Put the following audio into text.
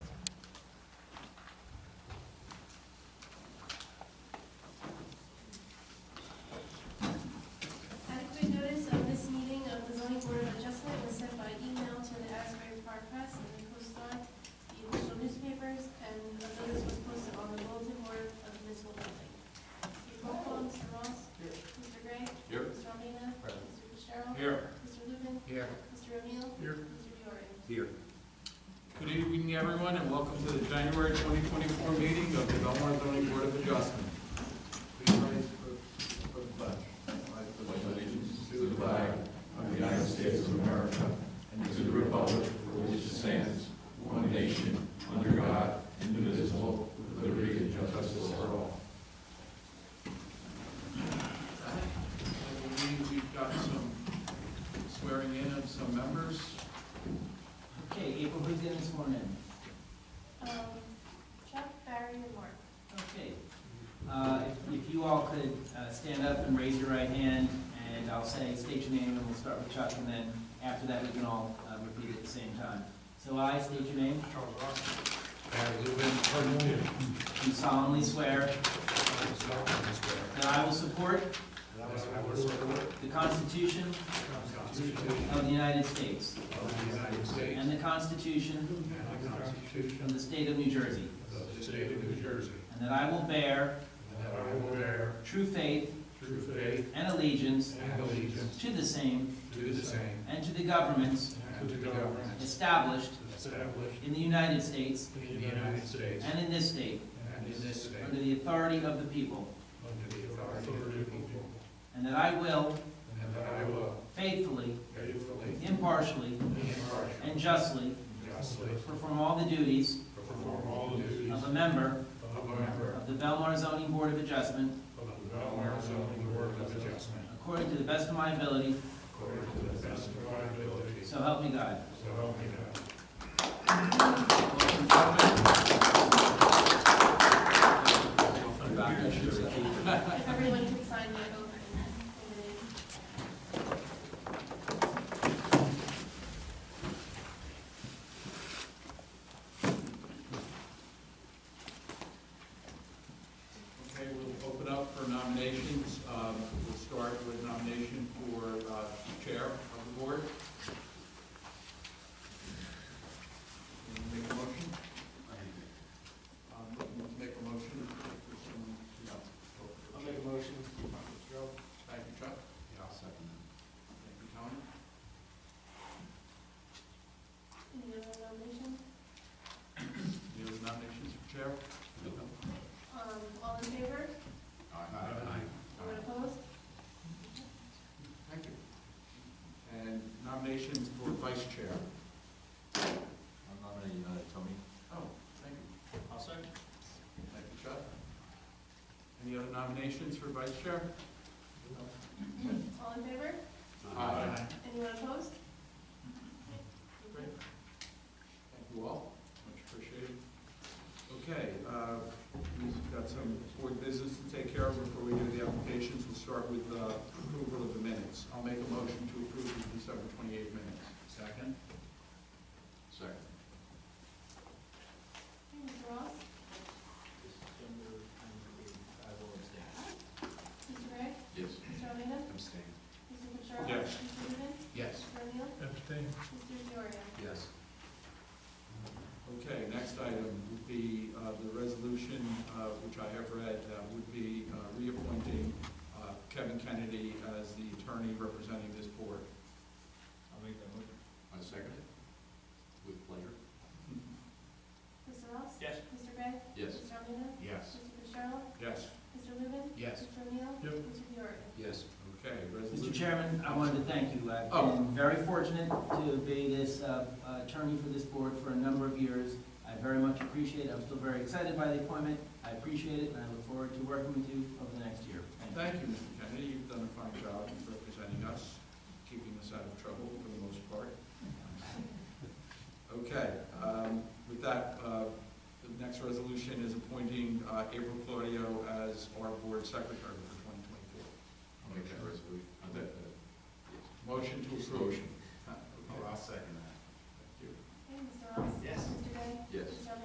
everyone, and welcome to the January 2024 meeting of the Belmar Zoning Board of Adjustment. Please rise for for the pledge. I believe we've got some swearing in of some members. Okay, April, who's getting sworn in? Um, Chuck, Barry, and Mark. Okay. Uh, if- If you all could uh, stand up and raise your right hand, and I'll say, state your name, and we'll start with Chuck, and then after that, we can all uh, repeat at the same time. So I state your name, Charles Ross. Barry Lubin. Cardinal. do solemnly swear that I will support That was my word. The the Constitution Constitution of the United States of the United States and the Constitution and the Constitution of the State of New Jersey, of the State of New Jersey, and that I will bear and that I will bear true faith true faith and allegiance and allegiance to the same to the same and to the governments and to the government established established in the United States in the United States and in this state, and in this state under the authority of the people, under the authority of the people, and that I will and that I will faithfully, faithfully, impartially, impartially, and justly and justly perform all the duties perform all the duties of a member of a member of the Belmar Zoning Board of Adjustment of the Belmar Zoning Board of Adjustment according to the best of my ability, according to the best of my ability, so help me God. so help me God. If everyone could sign my oath and then. Okay, we'll open up for nominations. Um, We'll start with nomination for uh, Chair of the Board. Anyone Make a motion? Um, let's Make a motion for someone to, yeah. I'll make a motion. Joe, Thank you, Chuck. Yeah, I'll second that. Thank you, Tony. Any other nominations? Any other nominations for Chair? Um, all in favor? Aye. Anyone opposed? Thank you. And nominations for Vice Chair. I'm nominating uh, Tony. Oh, thank you. I'll second. Thank you, Chuck. Any other nominations for vice chair? All in favor? Aye. Anyone opposed? Great. Thank you all, much appreciated. Okay, uh, we've got some board business to take care of before we do the applications. We'll start with uh, approval of the minutes. I'll make a motion to approve the December 28 minutes. Second? Second. Okay, Mr. Ross, Mr. Gray, Yes. Mr. Almeida, Abstain. Mr. Fitzgerald. Yes. Mr. Lubin, Yes. Mr. O'Neill, Mr. Diorio. Yes. Okay, next item would be uh, the resolution, uh, which I have read, uh, would be uh, reappointing uh, Kevin Kennedy as the attorney representing this board. I'll make that motion. I second it. With pleasure. Mr. Ross. Yes. Mr. Gray. Yes. Mr. Almeida, Yes. Mr. Fitzgerald, Yes. Mr. Lubin. Yes. Mr. O'Neill. Yep. Mr. Diorio. Yes. Okay, Mr. resolution. Chairman, I wanted to thank you. I've Oh. been very fortunate to be this uh, attorney for this board for a number of years. I very much appreciate it. I'm still very excited by the appointment. I appreciate it, and I look forward to working with you over the next year. Thank you. Thank you, Mr. Kennedy, you've done a fine job in representing us, keeping us out of trouble for the most part. Okay, um, with that, uh, the next resolution is appointing uh, April Claudio as our board secretary for I'll make that resolution. I'll make 2024. that. Motion to approve. Motion. Oh, Huh? Okay. second that. Thank you. Okay, Mr. Ross. Yes. Mr. Gray. Yes. Mr. Almeida.